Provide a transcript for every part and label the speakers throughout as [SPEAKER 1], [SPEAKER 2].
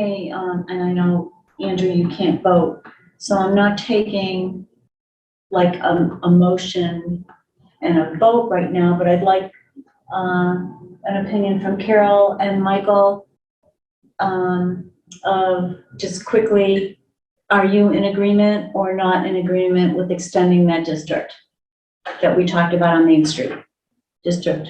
[SPEAKER 1] Hey, um, and I know, Andrew, you can't vote, so I'm not taking like a, a motion and a vote right now, but I'd like, um, an opinion from Carol and Michael, um, of just quickly, are you in agreement or not in agreement with extending that district that we talked about on Main Street? District,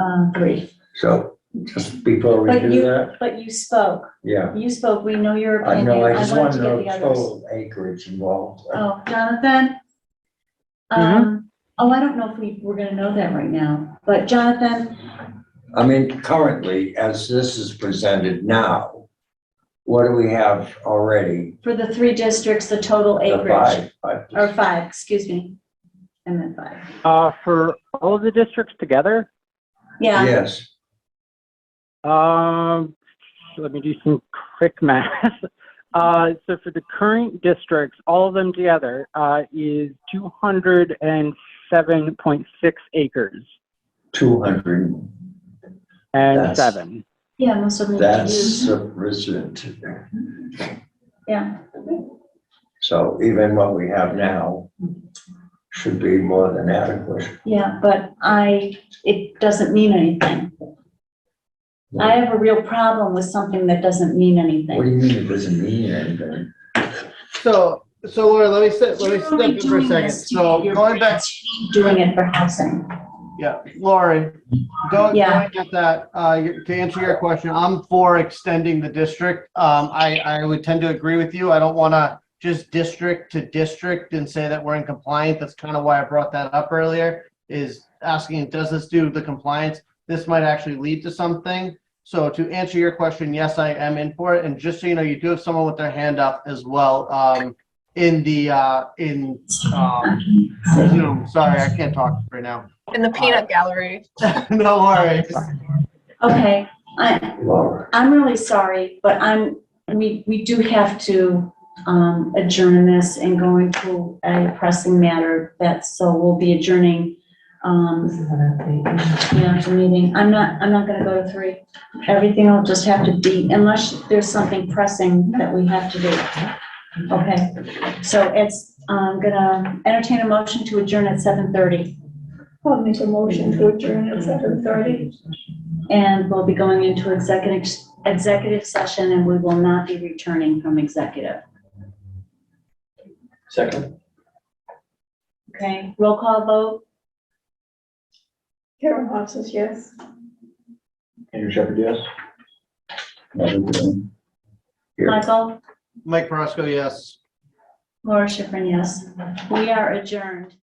[SPEAKER 1] uh, three.
[SPEAKER 2] So just before we
[SPEAKER 1] But
[SPEAKER 2] do
[SPEAKER 1] you-
[SPEAKER 2] that,
[SPEAKER 1] But you spoke.
[SPEAKER 2] yeah,
[SPEAKER 1] You spoke, we know your
[SPEAKER 2] I
[SPEAKER 1] opinion.
[SPEAKER 2] know, I just
[SPEAKER 1] wanted
[SPEAKER 2] want
[SPEAKER 1] to
[SPEAKER 2] to
[SPEAKER 1] get the
[SPEAKER 2] know
[SPEAKER 1] others.
[SPEAKER 2] total acreage involved.
[SPEAKER 1] Oh, Jonathan?
[SPEAKER 3] Mm-hmm.
[SPEAKER 1] Um, oh, I don't know if we, we're gonna know that right now, but Jonathan,
[SPEAKER 2] I mean, currently, as this is presented now, what do we have already?
[SPEAKER 1] for the three districts, the total
[SPEAKER 2] The
[SPEAKER 1] acreage, Oh,
[SPEAKER 2] five, five-
[SPEAKER 1] or five, excuse me. I meant five.
[SPEAKER 4] Uh, for all of the districts together,
[SPEAKER 1] Yeah,
[SPEAKER 2] Yes,
[SPEAKER 4] um, let me do some quick math. Uh, so for the current districts, all of them together, uh, is 207.6 acres
[SPEAKER 2] two hundred,
[SPEAKER 1] Mm-hmm.
[SPEAKER 4] and
[SPEAKER 2] That's-
[SPEAKER 4] seven.
[SPEAKER 1] yeah, most of them.
[SPEAKER 2] that's
[SPEAKER 1] do.
[SPEAKER 2] sufficient.
[SPEAKER 1] Yeah,
[SPEAKER 2] So even what we have now should be more than adequate.
[SPEAKER 1] yeah, but I, it doesn't mean anything. I have a real problem with something that doesn't mean
[SPEAKER 2] What
[SPEAKER 1] anything.
[SPEAKER 2] do you mean it doesn't mean anything?
[SPEAKER 3] So, so Laura, let me step, let me
[SPEAKER 1] You're only
[SPEAKER 3] step in for a
[SPEAKER 1] doing
[SPEAKER 3] second.
[SPEAKER 1] this to
[SPEAKER 3] So
[SPEAKER 1] your
[SPEAKER 3] going back,
[SPEAKER 1] friends, Doing it for housing.
[SPEAKER 3] yeah, Lauren, going,
[SPEAKER 1] Yeah.
[SPEAKER 3] going at that, uh, your- to answer your question, I'm for extending the district. Um, I, I would tend to agree with you. I don't want to just district to district and say that we're in compliance. That's kind of why I brought that up earlier, is asking, does this do the compliance? This might actually lead to something. So to answer your question, yes, I am in for it. And just so you know, you do have someone with their hand up as well, um, in the, uh, in, um, Zoom. Sorry, I can't talk right now.
[SPEAKER 5] In the peanut gallery.
[SPEAKER 3] No worries.
[SPEAKER 1] Okay, I,
[SPEAKER 2] Laura?
[SPEAKER 1] I'm really sorry, but I'm, we, we do have to um, adjourn this and go into a pressing matter that's, so we'll be adjourning. um, Yeah, the meeting. I'm not, I'm not gonna go to three. Everything will just have to be, unless there's something pressing that we have to do. Okay, so it's, I'm gonna entertain a motion to adjourn at seven thirty.
[SPEAKER 6] I'll make a motion to adjourn at seven thirty.
[SPEAKER 1] And we'll be going into executive, executive session and we will not be returning from executive. Second. Okay, roll call vote,
[SPEAKER 6] Karen Hoff says yes.
[SPEAKER 2] Andrew Shepherd, yes. Here.
[SPEAKER 1] Michael,
[SPEAKER 3] Mike Verosco, yes.
[SPEAKER 1] Laura Schifrin, yes. We are adjourned.